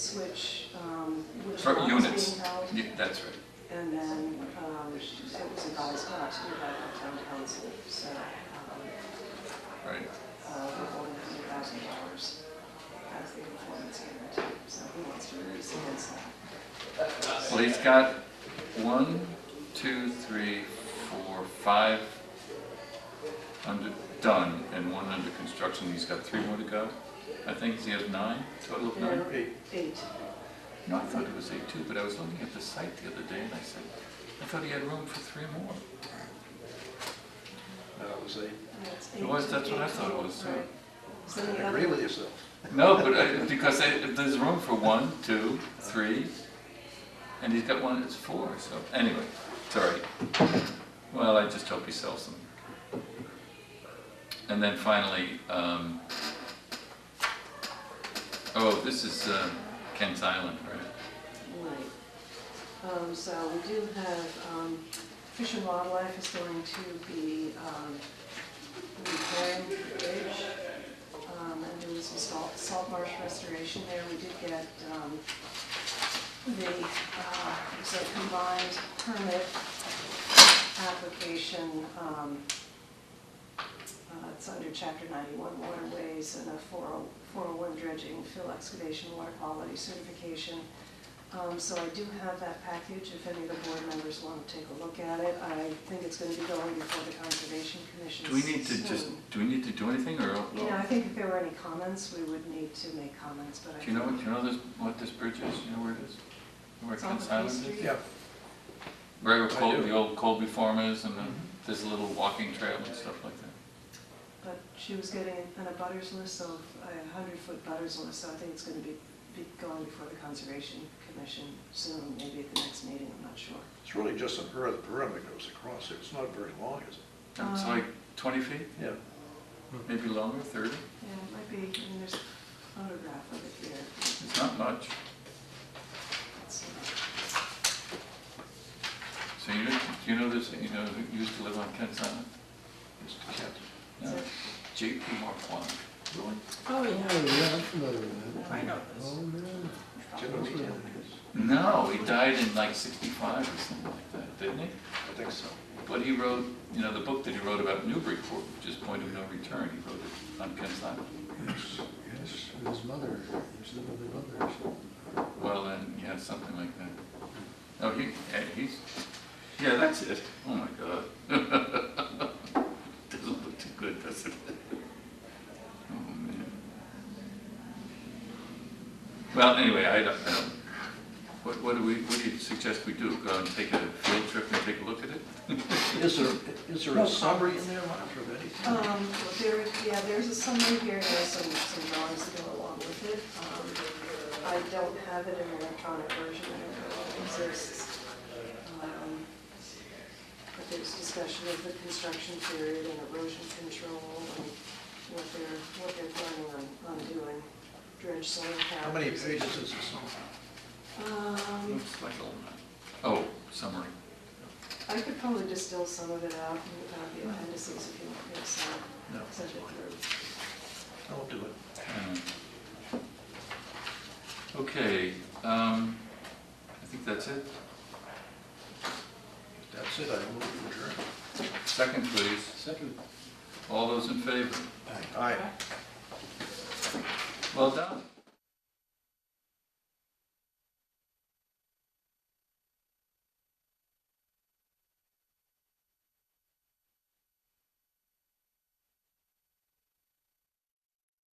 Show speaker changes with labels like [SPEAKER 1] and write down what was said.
[SPEAKER 1] which, um, which
[SPEAKER 2] For
[SPEAKER 1] lot
[SPEAKER 2] units.
[SPEAKER 1] was being held.
[SPEAKER 2] Yeah, that's right.
[SPEAKER 1] And then, um, it was advised not to do that by town council, so, um,
[SPEAKER 2] Right.
[SPEAKER 1] uh, we're holding hundred thousand dollars as the performance guarantee, so who wants to raise against that?
[SPEAKER 2] Well, he's got one, two, three, four, five under, done, and one under construction. He's got three more to go. I think he has nine, total of nine.
[SPEAKER 1] Eight. Eight.
[SPEAKER 2] No, I thought it was eight too, but I was looking at the site the other day and I said, I thought he had room for three more.
[SPEAKER 3] No, it was a,
[SPEAKER 1] That's
[SPEAKER 2] It was,
[SPEAKER 1] eight-
[SPEAKER 2] that's what I
[SPEAKER 1] eight
[SPEAKER 2] thought it
[SPEAKER 1] total,
[SPEAKER 2] was, uh,
[SPEAKER 1] right. So then you
[SPEAKER 3] I
[SPEAKER 1] have-
[SPEAKER 3] agree with yourself.
[SPEAKER 2] No, but I- because they- there's room for one, two, three, and he's got one that's four, so, anyway, sorry. Well, I just hope he sells them. And then finally, um, oh, this is uh, Kent's Island, right?
[SPEAKER 1] Right. Um, so we do have, um, Fish and Wildlife is going to be, um, repairing the bridge. Um, and doing some salt, salt marsh restoration there. We did get, um, the, uh, it's a combined permit application, um, uh, It's under Chapter 91 waterways and a oh, 40 401 dredging, fill excavation, water quality certification. Um, So I do have that package, if any of the board members want to take a look at it. I think it's going to be going before the Conservation Commission
[SPEAKER 2] Do we need to just,
[SPEAKER 1] soon.
[SPEAKER 2] do we need to do anything, or?
[SPEAKER 1] You know, I think if there were any comments, we would need to make comments, but I.
[SPEAKER 2] Do you know,
[SPEAKER 1] think-
[SPEAKER 2] what- do you know this, what this bridge is, do you know where it is? Where
[SPEAKER 1] It's on
[SPEAKER 2] Kent's
[SPEAKER 1] the
[SPEAKER 2] Island
[SPEAKER 1] P
[SPEAKER 2] is?
[SPEAKER 1] Street.
[SPEAKER 3] Yeah,
[SPEAKER 2] Right where
[SPEAKER 3] I
[SPEAKER 2] Col-
[SPEAKER 3] do.
[SPEAKER 2] the old Colby Farm is, and then
[SPEAKER 1] Mm-hmm.
[SPEAKER 2] there's a little walking trail and stuff like that.
[SPEAKER 1] But she was getting an a butters list of, a hundred-foot butters list, so I think it's gonna be, be going before the Conservation Commission soon, maybe at the next meeting, I'm not sure.
[SPEAKER 3] it's really just an earth berm that goes across it. It's not very long, is it?
[SPEAKER 2] It's
[SPEAKER 1] Um,
[SPEAKER 2] like 20 feet,
[SPEAKER 3] Yeah.
[SPEAKER 2] maybe longer, 30.
[SPEAKER 1] Yeah, it might be, I mean, there's a photograph of it here.
[SPEAKER 2] It's not much.
[SPEAKER 1] It's,
[SPEAKER 2] So you know, do you know this, you know, who used to live on Kent's Island?
[SPEAKER 3] It's the cat.
[SPEAKER 1] is
[SPEAKER 2] No,
[SPEAKER 1] it-
[SPEAKER 2] J.P. Marquand.
[SPEAKER 3] Really?
[SPEAKER 4] Oh, yeah, I'm familiar with that.
[SPEAKER 1] I know
[SPEAKER 4] Oh,
[SPEAKER 1] this.
[SPEAKER 4] man.
[SPEAKER 3] Jim and me did it.
[SPEAKER 2] No, he died in like 65 or something like that, didn't he?
[SPEAKER 3] I think so.
[SPEAKER 2] But he wrote, you know, the book that he wrote about Newburyport, which is Point of No Return, he wrote it on Kent's Island.
[SPEAKER 3] Yes, yes.
[SPEAKER 4] Yes, with his mother, his little mother or something.
[SPEAKER 2] Well, then, yeah, something like that. Oh, he, eh, he's, yeah, that's it. Oh, my God. Doesn't look too good, does it? Oh, man. Well, anyway, I don't, I don't, what, what do we, what do you suggest we do? Go and take a field trip and take a look at it?
[SPEAKER 3] Is there, is there a summary in there, Mark, of anything?
[SPEAKER 1] Um, well, there, yeah, there's a summary here, and there's some, some drawings to go along with it. Um, I don't have it in an electronic version, I don't know if it exists. Um, But there's discussion of the construction period and erosion control and what they're, what they're planning on, on doing, dredge soil cap.
[SPEAKER 3] How many pages is this on?
[SPEAKER 1] Um,
[SPEAKER 2] Looks like a lot. Oh, summary.
[SPEAKER 1] I could probably distill some of it out and have the appendices if you want me to send
[SPEAKER 3] No,
[SPEAKER 1] send it through.
[SPEAKER 3] I won't do it.
[SPEAKER 2] Uh, Okay, um, I think that's it.
[SPEAKER 3] That's it, I move to adjourn.
[SPEAKER 2] Second, please.
[SPEAKER 4] Second.
[SPEAKER 2] All those in favor?
[SPEAKER 3] Aye.
[SPEAKER 2] Well done.